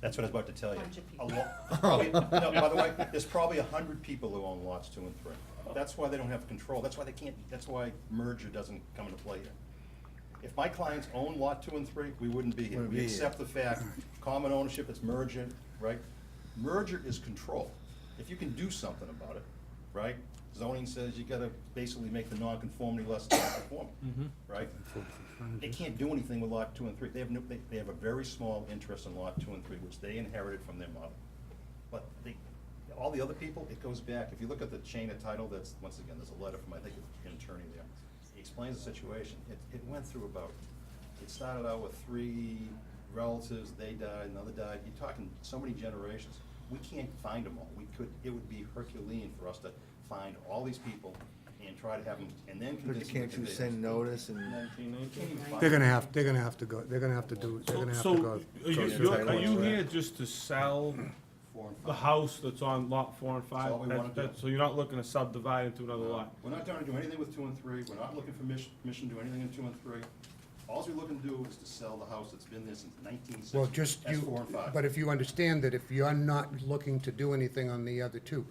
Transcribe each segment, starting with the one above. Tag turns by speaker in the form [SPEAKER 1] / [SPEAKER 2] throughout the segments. [SPEAKER 1] That's what I was about to tell you.
[SPEAKER 2] Bunch of
[SPEAKER 1] A
[SPEAKER 2] people.
[SPEAKER 1] lot, probably- no, by the way, there's probably a hundred people who own lots two and three. That's why they don't have control, that's why they can't, that's why merger doesn't come into play here. If my clients own lot two and three, we wouldn't be here.
[SPEAKER 3] Wouldn't
[SPEAKER 1] We
[SPEAKER 3] be here.
[SPEAKER 1] accept the fact, common ownership, it's merger, right? Merger is control. If you can do something about it, right? Zoning says you gotta basically make the nonconformity less non-conforming, right? They can't do anything with lot two and three. They have no, they, they have a very small interest in lot two and three, which they inherited from their mother. But they, all the other people, it goes back, if you look at the chain of title, that's, once again, there's a letter from, I think, an attorney there. He explains the situation. It, it went through about, it started out with three relatives, they died, another died. You're talking so many generations. We can't find them all. We could, it would be Herculean for us to find all these people and try to have them, and then
[SPEAKER 3] But you
[SPEAKER 1] convince them.
[SPEAKER 3] can't
[SPEAKER 1] that
[SPEAKER 3] you
[SPEAKER 1] they-
[SPEAKER 3] send notice and,
[SPEAKER 4] They're gonna have, they're gonna have to go, they're gonna have to do, they're gonna have to
[SPEAKER 5] So,
[SPEAKER 4] go.
[SPEAKER 5] are you,
[SPEAKER 3] go through
[SPEAKER 5] you're-
[SPEAKER 3] title
[SPEAKER 5] are you
[SPEAKER 3] insurance.
[SPEAKER 5] here just to sell
[SPEAKER 1] Four and five.
[SPEAKER 5] the house that's on lot four and
[SPEAKER 1] That's all
[SPEAKER 5] five?
[SPEAKER 1] we
[SPEAKER 5] That-
[SPEAKER 1] wanna do.
[SPEAKER 5] that- So you're not looking to subdivide into another lot?
[SPEAKER 1] We're not trying to do anything with two and three, we're not looking for mission, permission to do anything in two and three. Alls we're looking to do is to sell the house that's been there since nineteen sixty.
[SPEAKER 4] Well, just
[SPEAKER 1] That's four
[SPEAKER 4] you,
[SPEAKER 1] and five.
[SPEAKER 4] but if you understand that if you're not looking to do anything on the other two,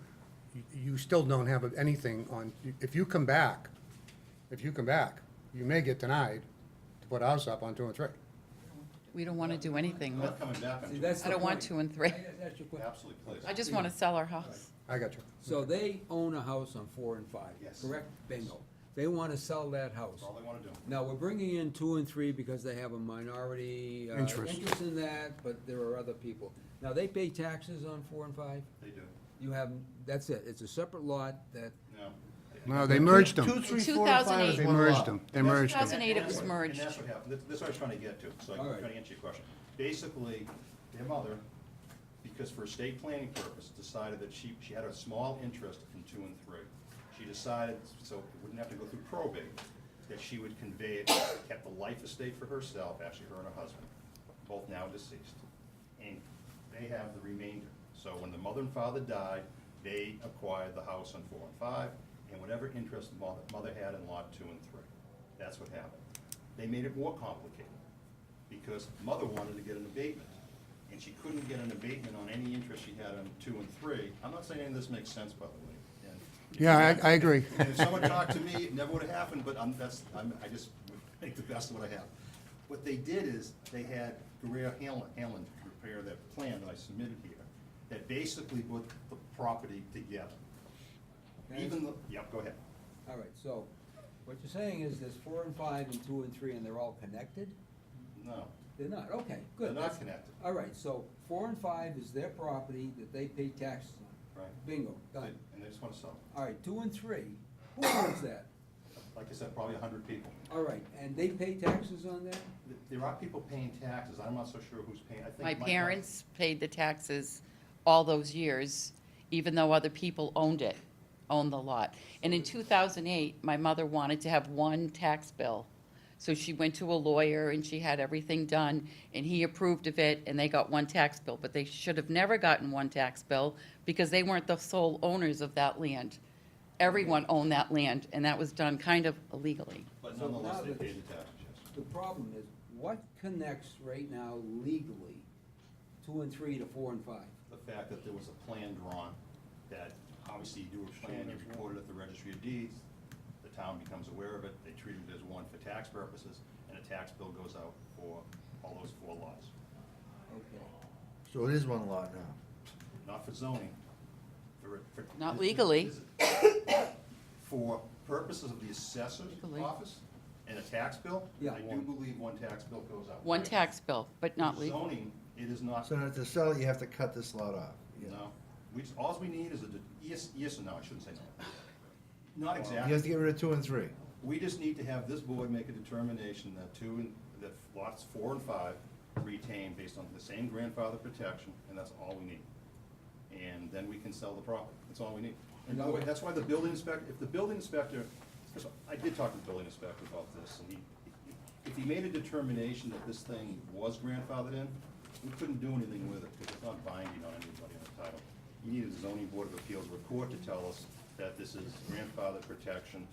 [SPEAKER 4] you- you still don't have anything on, if you come back, if you come back, you may get denied to put ours up on two and three.
[SPEAKER 2] We don't want to do anything
[SPEAKER 1] I'm
[SPEAKER 2] with,
[SPEAKER 1] not coming back on
[SPEAKER 6] See,
[SPEAKER 1] two,
[SPEAKER 6] that's
[SPEAKER 2] I
[SPEAKER 6] the
[SPEAKER 2] don't want
[SPEAKER 6] point.
[SPEAKER 2] two and three.
[SPEAKER 6] That's your point.
[SPEAKER 1] absolutely, please.
[SPEAKER 2] I just want to sell our house.
[SPEAKER 4] I got you.
[SPEAKER 6] So they own a house on four and five,
[SPEAKER 1] Yes.
[SPEAKER 6] correct? Bingo. They wanna sell that house.
[SPEAKER 1] That's all they wanna do.
[SPEAKER 6] Now, we're bringing in two and three because they have a minority uh,
[SPEAKER 4] Interest.
[SPEAKER 6] interest in that, but there are other people. Now, they pay taxes on four and five?
[SPEAKER 1] They do,
[SPEAKER 6] You have, that's it, it's a separate lot that,
[SPEAKER 1] no.
[SPEAKER 4] No, they merged
[SPEAKER 3] two,
[SPEAKER 4] them.
[SPEAKER 3] three, four, and five is
[SPEAKER 4] They
[SPEAKER 3] one
[SPEAKER 4] merged
[SPEAKER 3] lot.
[SPEAKER 4] them. They merged
[SPEAKER 2] That's-
[SPEAKER 4] them.
[SPEAKER 2] 2008 it
[SPEAKER 1] And that's
[SPEAKER 2] was
[SPEAKER 1] what-
[SPEAKER 2] merged.
[SPEAKER 1] And that's what happened, That- that's what I was trying to get to, so I'm
[SPEAKER 6] All right.
[SPEAKER 1] trying to answer your question. Basically, their mother, because for estate planning purpose, decided that she, she had a small interest in two and three. She decided, so it wouldn't have to go through probate, that she would convey it, kept the life estate for herself, actually her and her husband, both now deceased. And they have the remainder. So when the mother and father died, they acquired the house on four and five, and whatever interest the mother, mother had in lot two and three. That's what happened. They made it more complicated, because mother wanted to get an abatement, and she couldn't get an abatement on any interest she had on two and three. I'm not saying any of this makes sense, by the way. and-
[SPEAKER 4] Yeah, I, I agree.
[SPEAKER 1] and if someone talked to me, it never would have happened, but I'm, that's, I'm, I just would make the best of what I have. What they did is, they had Guerrero Hanlon, Hanlon prepare that plan that I submitted here, that basically put the property together. Even the, yep, go ahead.
[SPEAKER 6] all right, so what you're saying is there's four and five and two and three and they're all connected?
[SPEAKER 1] No,
[SPEAKER 6] They're not, okay,
[SPEAKER 1] they're
[SPEAKER 6] good.
[SPEAKER 1] not connected.
[SPEAKER 6] All right, so four and five is their property that they pay taxes on.
[SPEAKER 1] Right.
[SPEAKER 6] Bingo,
[SPEAKER 1] They-
[SPEAKER 6] done.
[SPEAKER 1] And they just wanna sell,
[SPEAKER 6] All right, two and three, who owns that?
[SPEAKER 1] like I said, probably a hundred people.
[SPEAKER 6] All right, and they pay taxes on that?
[SPEAKER 1] Th- There are people paying taxes, I'm not so sure who's paying, I think.
[SPEAKER 2] My
[SPEAKER 1] Mike-
[SPEAKER 2] parents paid the taxes all those years, even though other people owned it, owned the lot. And in 2008, my mother wanted to have one tax bill. So she went to a lawyer and she had everything done, and he approved of it, and they got one tax bill. But they should have never gotten one tax bill because they weren't the sole owners of that land. Everyone owned that land, and that was done kind of illegally.
[SPEAKER 1] But
[SPEAKER 6] So
[SPEAKER 1] nonetheless,
[SPEAKER 6] now
[SPEAKER 1] they
[SPEAKER 6] that-
[SPEAKER 1] paid the taxes, yes.
[SPEAKER 6] The problem is, what connects right now legally, two and three to four and five?
[SPEAKER 1] the fact that there was a plan drawn, that obviously you do a plan, you record it at the registry of deeds, the town becomes aware of it, they treat it as one for tax purposes, and a tax bill goes out for all those four lots.
[SPEAKER 6] Okay.
[SPEAKER 3] So it is one lot now.
[SPEAKER 1] Not for zoning, for, for.
[SPEAKER 2] Not legally.
[SPEAKER 1] For purposes of the assessor's
[SPEAKER 2] Legally.
[SPEAKER 1] office and a tax bill,
[SPEAKER 6] Yeah.
[SPEAKER 1] I do believe one tax bill goes out.
[SPEAKER 2] One tax bill, but not
[SPEAKER 1] For
[SPEAKER 2] legal.
[SPEAKER 1] Zoning, it is not.
[SPEAKER 3] So now to sell it, you have to cut this lot off. Yeah.
[SPEAKER 1] No, we, just- alls we need is a, de- yes, yes and no, I shouldn't say no. Not
[SPEAKER 3] You have
[SPEAKER 1] exactly,
[SPEAKER 3] to get rid of two and three.
[SPEAKER 1] we just need to have this board make a determination that two and, that lots four and five retain based on the same grandfather protection, and that's all we need. And then we can sell the property, that's all we need. And by the way, that's why the building inspector, if the building inspector, first of all, I did talk to the building inspector about this, and he, if he made a determination that this thing was grandfathered in, we couldn't do anything with it, because it's not binding on anybody on the title. You needed a zoning board of appeals or a court to tell us that this is grandfather protection,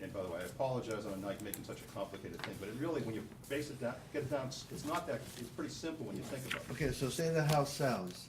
[SPEAKER 1] And by the way, I apologize on a night making such a complicated thing, but it really, when you base it down, get it down, it's not that, it's pretty simple when you think about it.
[SPEAKER 3] Okay, so say the house sells,